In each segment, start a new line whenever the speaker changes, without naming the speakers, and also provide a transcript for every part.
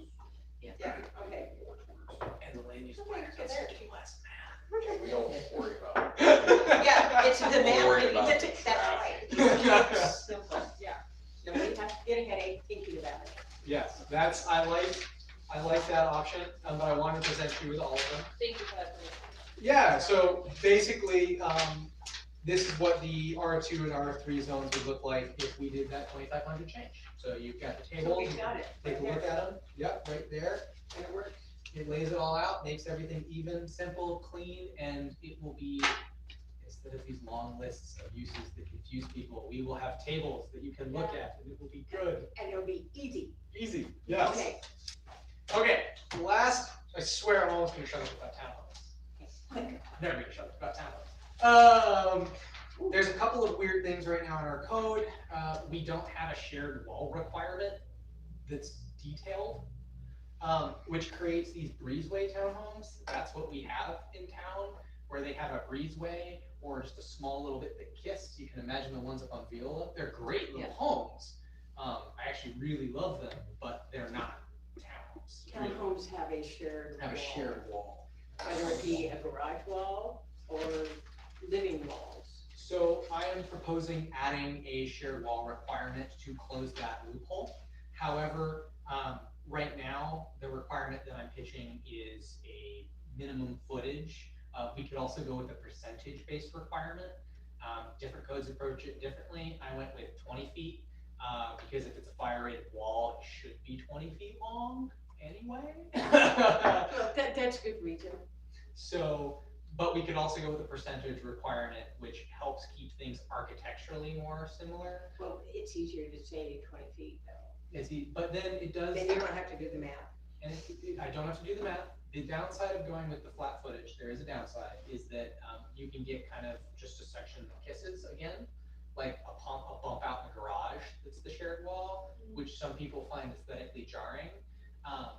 get to the
We're
math,
worried
when you
about
get to, that's right. Simple, yeah. No, we have to get a headache thinking about it.
Yes, that's, I like, I like that option, um, but I wanted to present you with all of them.
Thank you for that.
Yeah, so basically, um, this is what the R two and R three zones would look like if we did that twenty-five hundred change. So you've got the
So
table, you
we've got
can
it.
take a look at them, yep, right there.
And it works.
It lays it all out, makes everything even, simple, clean, and it will be, instead of these long lists of uses that confuse people, we will have tables that you can look at, and it will be good,
And it'll be easy.
easy, yes.
Okay.
Okay, last, I swear I'm almost gonna shut up about town halls.
Quick.
Never gonna shut up about town halls. Um, there's a couple of weird things right now in our code. Uh, we don't have a shared wall requirement that's detailed, um, which creates these breezeway townhomes. That's what we have in town, where they have a breezeway or just a small little bit that kissed. You can imagine the ones up on Viola. They're great little homes. Um, I actually really love them, but they're not townhomes. really.
Townhomes have a shared
Have a
wall,
shared wall.
Whether it be a garage wall or living walls.
So I am proposing adding a shared wall requirement to close that loophole. However, um, right now, the requirement that I'm pitching is a minimum footage. Uh, we could also go with a percentage-based requirement. Um, different codes approach it differently. I went with twenty feet, uh, because if it's a fire-rated wall, it should be twenty feet long anyway.
Well, that, that's a good reason.
So, but we could also go with a percentage requirement, which helps keep things architecturally more similar.
Well, it's easier to say twenty feet though.
Is he, but then it does,
Then
and
you don't have to do the math.
it- it- I don't have to do the math. The downside of going with the flat footage, there is a downside, is that um, you can get kind of just a section that kisses again, like a pump, a bump out in the garage that's the shared wall, which some people find aesthetically jarring. Um,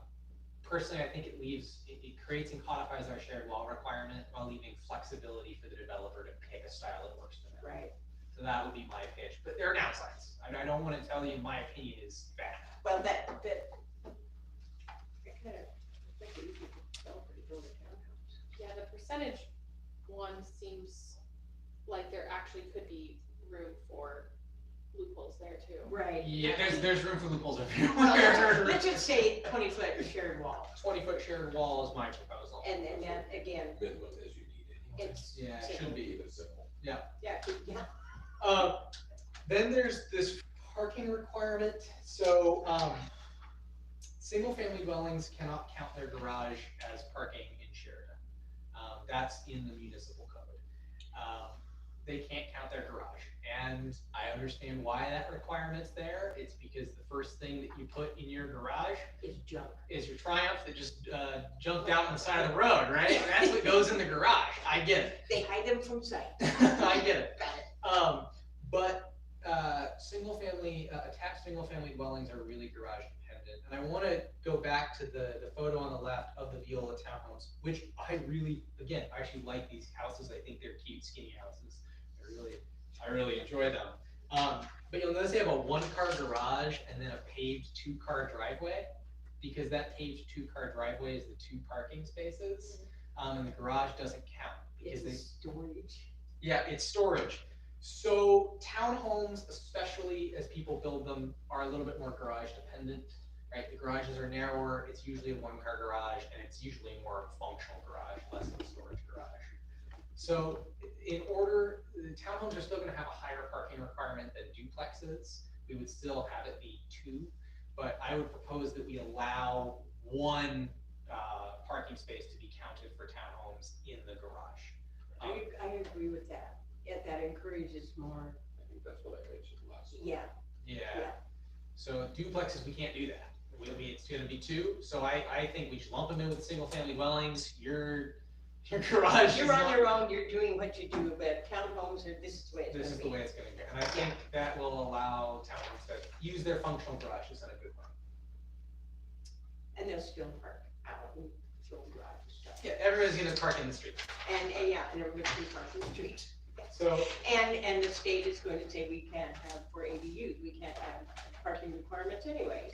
personally, I think it leaves, it, it creates and codifies our shared wall requirement while leaving flexibility for the developer to pick a style that works for them.
Right.
So that would be my pitch, but there are downsides. I, I don't want to tell you my opinion is bad.
Well, that, that. I kind of think that you could sell pretty build a townhouse.
Yeah, the percentage one seems like there actually could be room for loopholes there too.
Right.
Yeah, there's there's room for loopholes
Well,
everywhere.
Let's just say twenty foot shared wall,
Twenty foot shared wall is my proposal.
and then, that, again,
Minimum is you need anyway.
it's.
Yeah, it
safe.
should be.
Keep it simple.
Yeah, yeah,
Uh, then there's this parking requirement. So um, single family dwellings cannot count their garage as parking in Sheridan. Um, that's in the municipal code. Um, they can't count their garage. And I understand why that requirement's there. It's because the first thing that you put in your garage
it's junk.
is your Triumph that just uh, jumped out on the side of the road, right? That's what goes in the garage. I get it.
They hide them from sight.
I get it.
Got it.
Um, but uh, single family, uh, attached single family dwellings are really garage dependent. And I want to go back to the, the photo on the left of the Viola townhomes, which I really, again, I actually like these houses. I think they're cute, skinny houses. I really, I really enjoy them. Um, but you'll notice they have a one car garage and then a paved two car driveway because that paved two car driveway is the two parking spaces. Um, and the garage doesn't count because
It's
they
a storage.
yeah, it's storage. So townhomes, especially as people build them, are a little bit more garage dependent, right? The garages are narrower, it's usually a one-car garage, and it's usually more of a functional garage, less of a storage garage. So in order, the townhomes are still gonna have a higher parking requirement than duplexes. We would still have it be two, but I would propose that we allow one, uh, parking space to be counted for townhomes in the garage. Um,
I, I agree with that. Yeah, that encourages more,
I think that's what I mentioned last. time.
yeah,
Yeah,
Yeah.
so duplexes, we can't do that. We'll be, it's gonna be two, so I, I think we should lump them in with single family dwellings, your, your garage is
You're on
not-
your own, you're doing what you do, but townhomes are, this is the way it's gonna be.
This is the way it's gonna go, and I think that will allow towns to use their functional garages in a good way.
And they'll still park out and fill garage and stuff.
Yeah, everybody's gonna park in the street,
And, and yeah, and everybody can park in the street.
so,
And, and the state is going to say we can't have, for ADUs, we can't have parking requirements anyway,